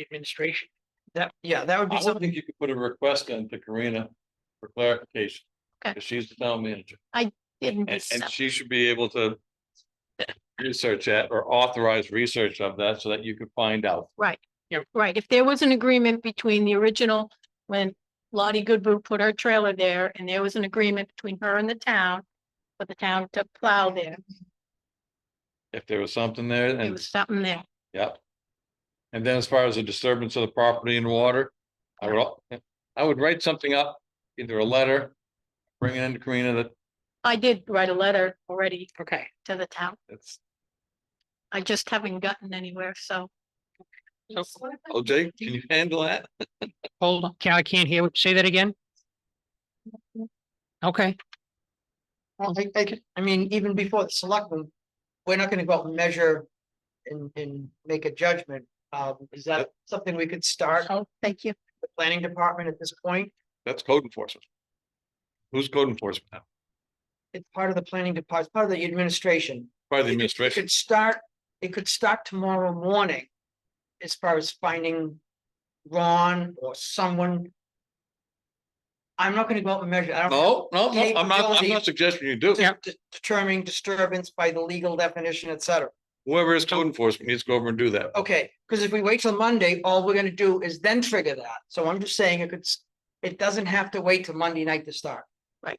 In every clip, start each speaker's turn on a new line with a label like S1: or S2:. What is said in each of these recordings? S1: administration. That, yeah, that would be
S2: I would
S1: something,
S2: think you could put a request in to Karina for clarification.
S3: Okay.
S2: 'cause She's the town manager
S3: Didn't
S2: and, and
S3: accept.
S2: she should be able to. Research that or authorize research of that so that you could find out.
S3: Right.
S1: Yep.
S3: Right. If there was an agreement between the original, when Lottie Goodboot put her trailer there and there was an agreement between her and the town, for the town to plow there,
S2: If there was something there
S3: there
S2: and,
S3: was something there.
S2: yep. And then as far as the disturbance of the property and water, I would, al- I would write something up, either a letter. Bring it into Karina that
S3: I did write a letter already
S1: okay,
S3: to the town.
S2: it's,
S3: I just haven't gotten anywhere, so.
S1: So-
S2: oh Jake, can you handle that?
S1: hold on, I can't hear, what- say that again? Okay.
S4: Well, I, I, I mean, even before the selectmen, we're not gonna go out and measure and, and make a judgment. Um, is that something we could start
S3: Oh, thank you.
S4: the planning department at this point?
S2: That's code enforcement. Who's code enforcement now?
S4: It's part of the planning department, part of the administration.
S2: Part of the
S4: It
S2: administration.
S4: could start, it could start tomorrow morning. As far as finding Ron or someone. I'm not gonna go out and measure. I don't
S2: No, no, no, I'm not, I'm not suggesting you do.
S1: Yeah.
S4: determine disturbance by the legal definition, et cetera.
S2: Whoever is code enforcement needs to go over and do that.
S4: Okay, because if we wait till Monday, all we're gonna do is then trigger that. So I'm just saying it could, s- it doesn't have to wait till Monday night to start.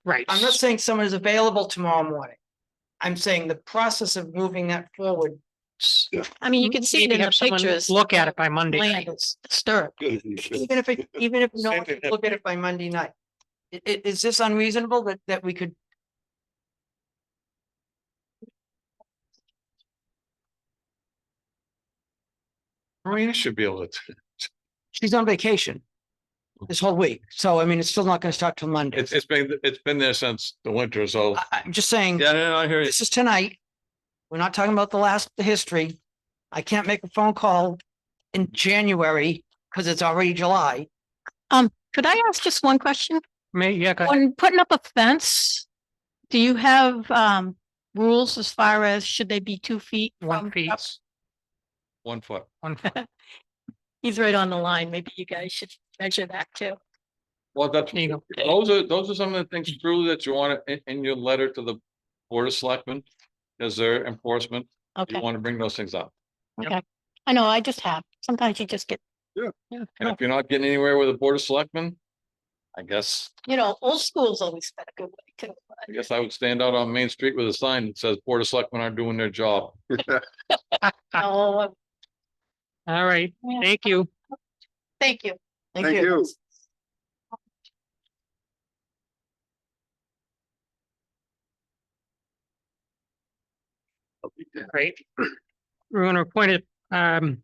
S1: Right.
S4: I'm not saying someone is available tomorrow morning. I'm saying the process of moving that forward.
S1: s-
S3: I mean, you can see it
S1: maybe
S3: in the
S1: have someone
S3: pictures.
S1: Look at it by Monday.
S3: Land is disturbed.
S2: Good.
S4: Even if, it- even if no
S2: Same
S4: one
S2: thing
S4: can look at it by Monday night. I- i- is this unreasonable that, that we could?
S2: Marina should be able to,
S4: She's on vacation. This whole week, so I mean, it's still not gonna start till Monday.
S2: it's, it's been, it's been there since the winter, so.
S4: I, I'm just saying.
S2: Yeah, no, no, I hear
S4: Uh,
S2: you.
S4: um, This is tonight. We're not talking about the last, the history. I can't make a phone call in January because it's already July.
S3: Could I ask just one question?
S1: May, yeah, go ahead.
S3: When putting up a fence, do you have um rules as far as should they be two feet?
S1: one
S3: from-
S1: feet,
S2: One foot.
S1: one foot.
S3: He's right on the line. Maybe you guys should measure that too.
S2: Well, that's,
S1: There you go.
S2: those are, those are some of the things truly that you want in, in your letter to the Board of Selectmen. As their enforcement, you
S3: Okay,
S2: want to bring those things up.
S3: I know, I just have. Sometimes you just get,
S1: Yeah,
S2: And if
S1: no,
S2: you're not getting anywhere with the Board of Selectmen, I guess,
S3: you know, old school's always been a good way too.
S2: I
S3: but-
S2: guess I would stand out on Main Street with a sign that says Board of Selectmen are doing their job.
S3: No,
S1: All right,
S3: oh, Yeah.
S1: thank you.
S3: thank you.
S4: Thank you.
S1: Great. We're gonna appoint it, um.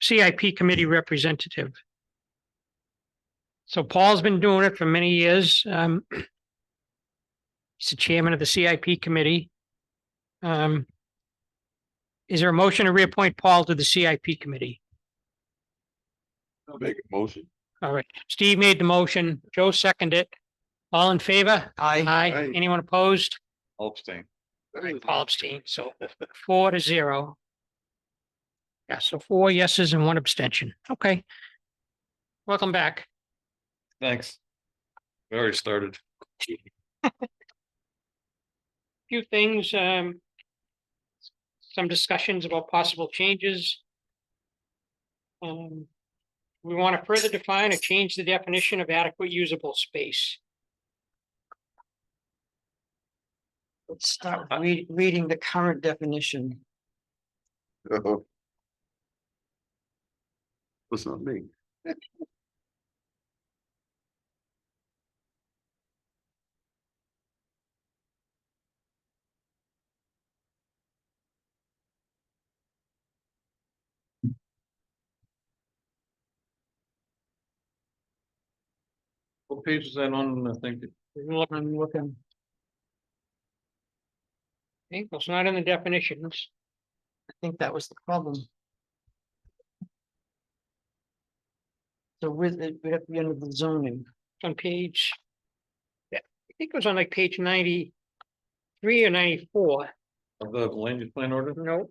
S1: CIP Committee Representative. So Paul's been doing it for many years. Um. He's the chairman of the CIP Committee. Um. Is there a motion to reappoint Paul to the CIP Committee?
S2: Make a motion.
S1: All right, Steve made the motion, Joe seconded it. All in favor?
S4: I,
S1: Aye.
S2: Aye.
S1: Anyone opposed?
S2: I'll abstain.
S1: Paul abstained, so four to zero. Yeah, so four yeses and one abstention. Okay. Welcome back.
S2: Thanks. We already started.
S1: Few things, um. Some discussions about possible changes. Um, we want to further define or change the definition of adequate usable space.
S4: let's start read, reading the current definition.
S5: Oh. Was not me.
S2: What page is that on, I think?
S1: Looking, looking. I think it's not in the definitions.
S4: I think that was the problem. So with it, we have to be under the zoning.
S1: It's on page. Yeah, I think it was on like page ninety-three or ninety-four.
S2: Of the land use plan order?
S1: No.